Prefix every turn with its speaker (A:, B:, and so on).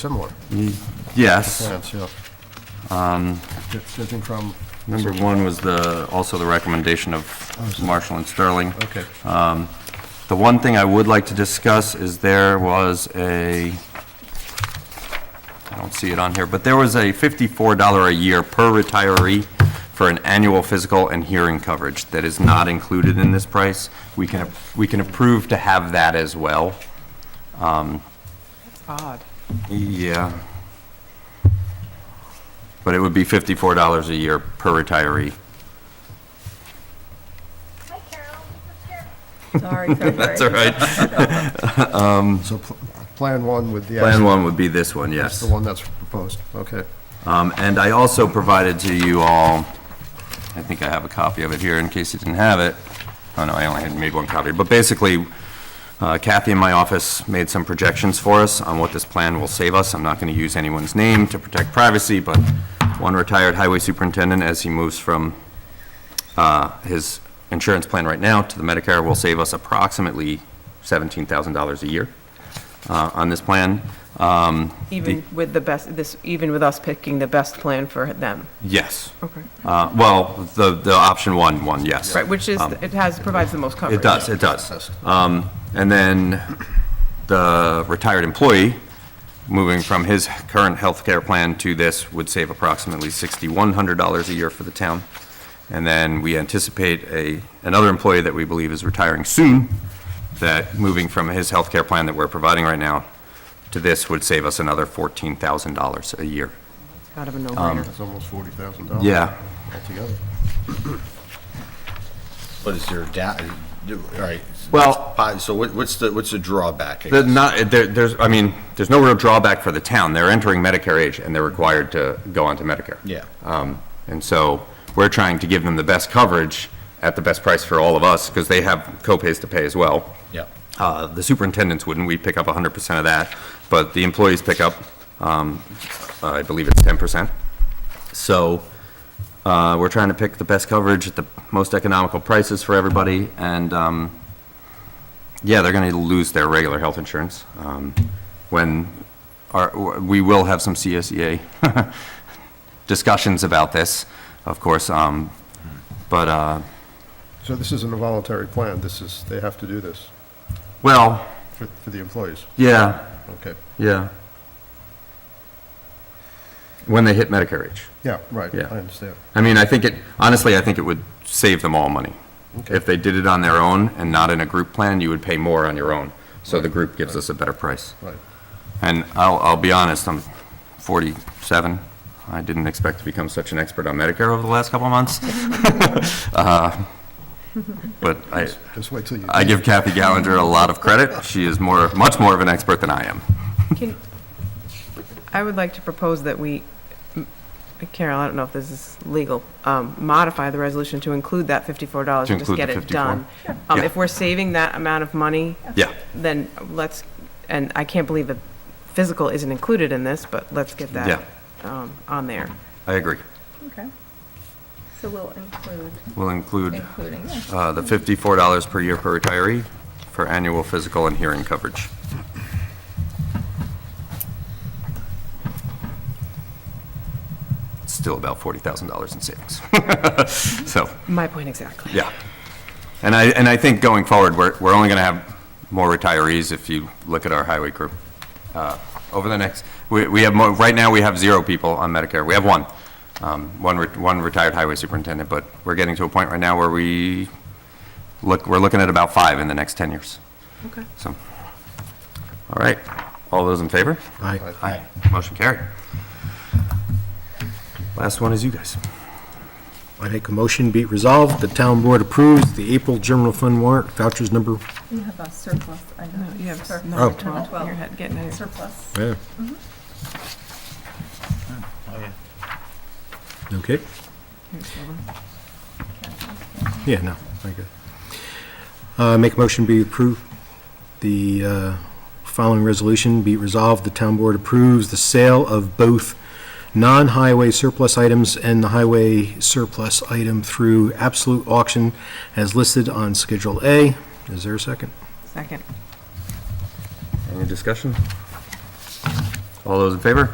A: similar,
B: Yes.
A: plans, yeah.
B: Um,
A: It's Judging from,
B: Number one was the, also the recommendation of Marshall and Sterling.
A: okay,
B: Um, The one thing I would like to discuss is there was a, I don't see it on here, but there was a $54 a year per retiree for an annual physical and hearing coverage that is not included in this price. We can, we can approve to have that as well.
C: Odd.
B: Yeah. But it would be $54 a year per retiree.
D: Hi, Carol. This is Carol.
C: Sorry,
B: That's all right.
A: so pl- Plan 1 with the,
B: Plan
A: actual-
B: one would be this one, yes.
A: the one that's proposed, okay.
B: Um, And I also provided to you all, I think I have a copy of it here in case you didn't have it. Oh, no, I only had made one copy. But basically, uh, Kathy in my office made some projections for us on what this plan will save us. I'm not going to use anyone's name to protect privacy, but one retired highway superintendent, as he moves from uh, his insurance plan right now to the Medicare, will save us approximately $17,000 a year uh, on this plan. Um,
C: Even with the best, this, even with us picking the best plan for them.
B: Yes.
C: Okay.
B: Uh, Well, the, the option one, one, yes. Um,
C: Right, which is, it has, provides the most coverage.
B: It does, it does. Um, And then the retired employee, moving from his current health care plan to this, would save approximately $6,100 a year for the town. And then we anticipate a, another employee that we believe is retiring soon, that moving from his health care plan that we're providing right now to this would save us another $14,000 a year. Um,
C: Kind of a no-brainer.
A: That's almost $40,000.
B: Yeah.
A: Altogether.
E: But is there a da, do- all right.
B: Well-
E: Pi- So what- what's the, what's the drawback?
B: The- Not, there, there's, I mean, there's no real drawback for the town. They're entering Medicare age and they're required to go onto Medicare.
E: Yeah.
B: Um, and so we're trying to give them the best coverage at the best price for all of us because they have copays to pay as well.
E: Yeah.
B: Uh, the superintendents wouldn't. We pick up 100% of that, but the employees pick up, um, I believe it's 10%. So, uh, we're trying to pick the best coverage at the most economical prices for everybody, and, um, yeah, they're gonna lose their regular health insurance, um, when, our, we will have some CSEA discussions about this, of course, um, but, uh,
A: So this is an involuntary plan, this is, they have to do this
B: well,
A: for, for the employees,
B: yeah,
A: okay.
B: yeah. When they hit Medicare age.
A: Yeah, right,
B: Yeah.
A: I understand.
B: I mean, I think it, honestly, I think it would save them all money.
A: Okay.
B: If they did it on their own and not in a group plan, you would pay more on your own. So the group gives us a better price.
A: Right,
B: And I'll, I'll be honest, I'm 47. I didn't expect to become such an expert on Medicare over the last couple of months. Uh, But I,
A: just wait till you,
B: I give Kathy Gallagher a lot of credit. She is more, much more of an expert than I am.
C: Can- I would like to propose that we, Carol, I don't know if this is legal, um, modify the resolution to include that fifty-four dollars
B: To
C: and just
B: include
C: get
B: the
C: it
B: 54.
C: done. Um,
B: Yeah.
C: if we're saving that amount of money,
B: Yeah.
C: then let's, and I can't believe that physical isn't included in this, but let's get that, um, on there.
B: I agree.
F: Okay. So we'll include,
B: We'll include
F: including, yeah.
B: uh, the $54 per year per retiree for annual physical and hearing coverage. It's Still about $40,000 in savings. So,
C: My point exactly.
B: yeah. And I, and I think going forward, we're, we're only going to have more retirees if you look at our highway crew. Uh, Over the next, we, we have more, right now, we have zero people on Medicare. We have one, um, one, re- one retired highway superintendent, but we're getting to a point right now where we look, we're looking at about five in the next 10 years.
C: Okay.
B: So, all right. All those in favor?
E: Aye.
B: Aye. Motion carried. Last one is you guys.
G: I make a motion, be it resolved, the town board approves the April general fund warrant vouchers number,
F: You have a surplus item.
C: No, you have
F: Sur-
C: number
F: number
C: 12 in your head, getting it.
F: Surplus.
G: yeah. Okay, yeah, no, I got it. Uh, make a motion, be approved, the, uh, following resolution, be it resolved, the town board approves the sale of both non-highway surplus items and the highway surplus item through absolute auction as listed on Schedule A. Is there a second?
C: Second.
B: Any discussion? All those in favor?